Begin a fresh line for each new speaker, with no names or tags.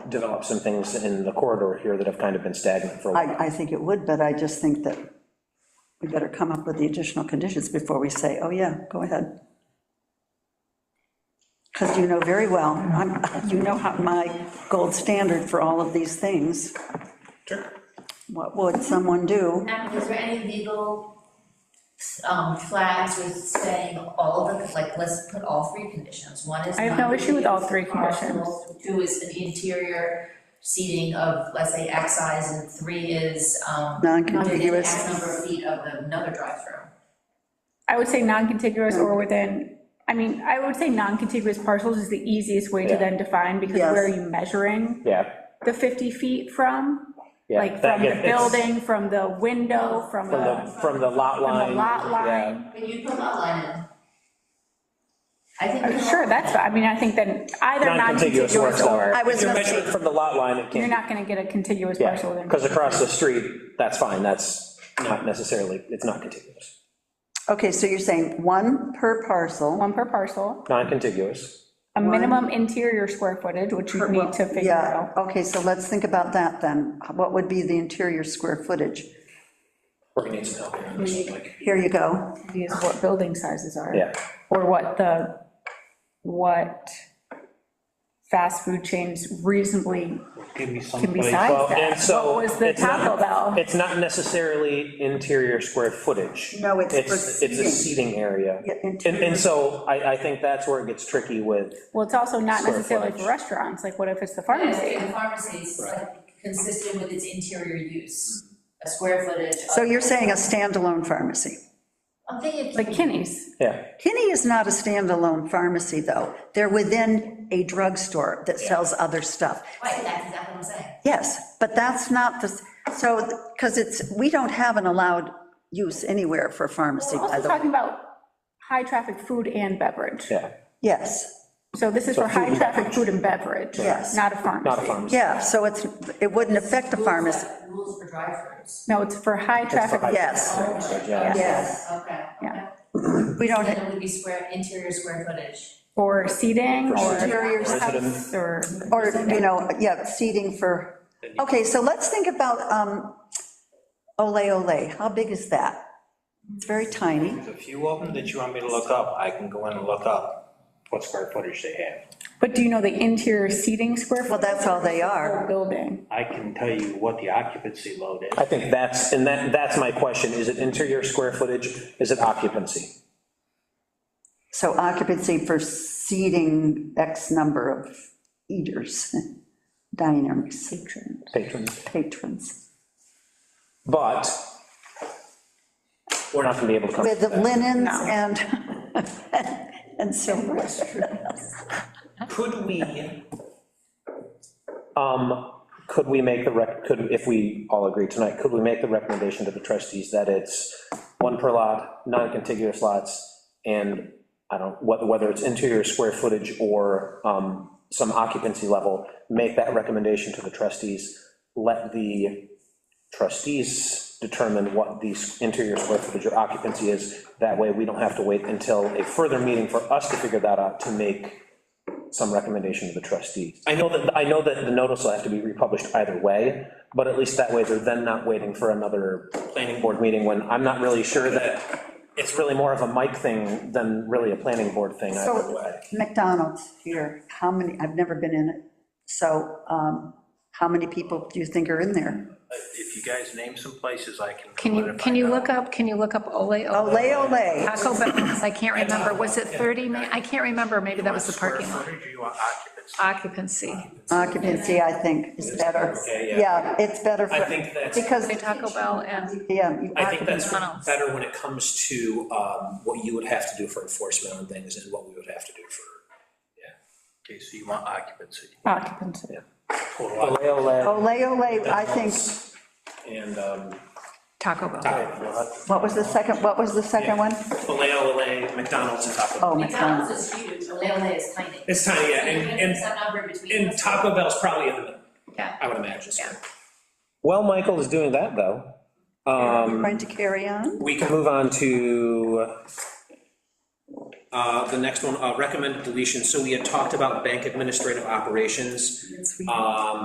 develop some things in the corridor here that have kind of been stagnant for a while.
I, I think it would, but I just think that we better come up with the additional conditions before we say, oh, yeah, go ahead. Because you know very well, I'm, you know how my gold standard for all of these things. What would someone do?
Now, was there any legal, um, flags with saying all of them, like, let's put all three conditions, one is.
I have no
not
issue with all three
reusable, Two is an interior seating of, let's say, X size, and three is, um. within
Non-contiguous.
X number of feet of another drive-through.
I would say non-contiguous or within, I mean, I would say non-contiguous parcels is the easiest way to
Yeah.
then define, because
Yes.
where are you measuring
Yeah,
the 50 feet from?
yeah.
Like,
that-
from the
it's-
building, from the window,
From
from the,
uh,
the, from the lot
from
line.
the lot
yeah.
line.
But you put lot line in. I think. we
Uh,
can
Sure,
all-
that's, I mean, I think then either
Non-contiguous
non-contiguous
works though.
or,
I was
If you're
gonna say-
measuring from the lot line, it
you're
can't,
not gonna get a contiguous parcel.
yeah,
then.
because across the street, that's fine, that's not necessarily, it's not contiguous.
Okay, so you're saying one per parcel,
One per parcel,
Non-contiguous,
a minimum interior square footage, which you need to figure
yeah,
out.
okay, so let's think about that then. What would be the interior square footage?
we're gonna need some help here on this, like,
Here you go,
Is what building sizes are.
yeah.
or what the, what fast food chains reasonably
Give me some
can be
place.
Well,
sized
and
at.
so.
What was the
it's not-
Taco Bell?
It's not necessarily interior square footage.
No, it's for
It's a seating area.
Yeah,
And,
interior.
and so I, I think that's where it gets tricky with,
Well, it's also not
Square
necessarily for
footage.
restaurants, like what if it's the
Yeah,
pharmacy?
the pharmacy is like consistent with its interior use, a square footage. of-
so you're saying a standalone pharmacy?
I'm thinking.
Like Kinney's,
yeah,
Kinney is not a standalone pharmacy, though. They're within a drugstore that sells other stuff.
Right, that's exactly what I'm saying.
Yes, but that's not the, so, because it's, we don't have an allowed use anywhere for pharmacy,
we're
by
also
the way.
talking about high-traffic food and beverage.
yeah.
Yes,
So this is for high-traffic food and beverage,
Yes.
not a pharmacy.
Not a pharmacy.
yeah, so it's, it wouldn't affect the
Rules
pharmacy.
that- Rules for drive-throughs.
No, it's for high-traffic,
high-
Yes,
Yeah.
yes.
Okay, okay.
Yeah.
We don't,
Then it would be square, interior square footage.
for seating,
For
or
seating.
Interior
house, or,
or, you know, yeah, seating for, okay, so let's think about um, Ole Ole. How big is that? It's very tiny.
There's a few of them that you want me to look up, I can go in and look up what square footage they have.
but do you know the interior seating square?
Well, that's all they are.
Building.
I can tell you what the occupancy load is.
I think that's, and that, that's my question, is it interior square footage, is it occupancy?
So occupancy for seating X number of eaters, diners,
Patrons.
patrons,
But we're not gonna be able to come to
with
that.
linens
No.
and, and silver.
Could we?
uh,
Um, could we make the rec, could, if we all agree tonight, could we make the recommendation to the trustees that it's one per lot, non-contiguous lots, and I don't, whether, whether it's interior square footage or, um, some occupancy level, make that recommendation to the trustees, let the trustees determine what the s- interior square footage or occupancy is, that way we don't have to wait until a further meeting for us to figure that out, to make some recommendation to the trustees. I know that, I know that the notice will have to be republished either way, but at least that way they're then not waiting for another planning board meeting when I'm not really sure that it's really more of a mic thing than really a planning board thing either
So
way.
McDonald's here, how many, I've never been in it, so um, how many people do you think are in there?
If you guys name some places, I can.
Can you, can you look up, can you look up Ole Ole?
Ole Ole,
Taco Bell, 'cause I can't remember, was it 30, ma- I can't remember, maybe that was the parking lot.
Square footage or you want occupancy?
Occupancy.
occupancy, I think, is better.
Okay,
Yeah, it's better for.
I think that's-
Because,
Taco Bell and,
yeah. you-
I think that's
McDonald's.
better when it comes to um, what you would have to do for enforcement on things and what we would have to do for.
Okay, so you want occupancy.
Occupancy.
Total
Ole,
occupancy.
ole,
Ole Ole, I think,
And, um,
Taco Bell.
I-
what was the second, what was the second one?
Olay Olay, McDonald's and Taco Bell.
Oh, McDonald's.
McDonald's is huge, Olele is tiny.
It's tiny, yeah,
Even if
and,
it's a number between
and, and
us.
Taco Bell's probably in the middle,
Yeah.
I would imagine, so.
Yeah.
Well, Michael is doing that, though. Um,
Going to carry on?
We can move on to,
Uh, the next one, uh, recommended deletion, so we had talked about bank administrative operations. Um,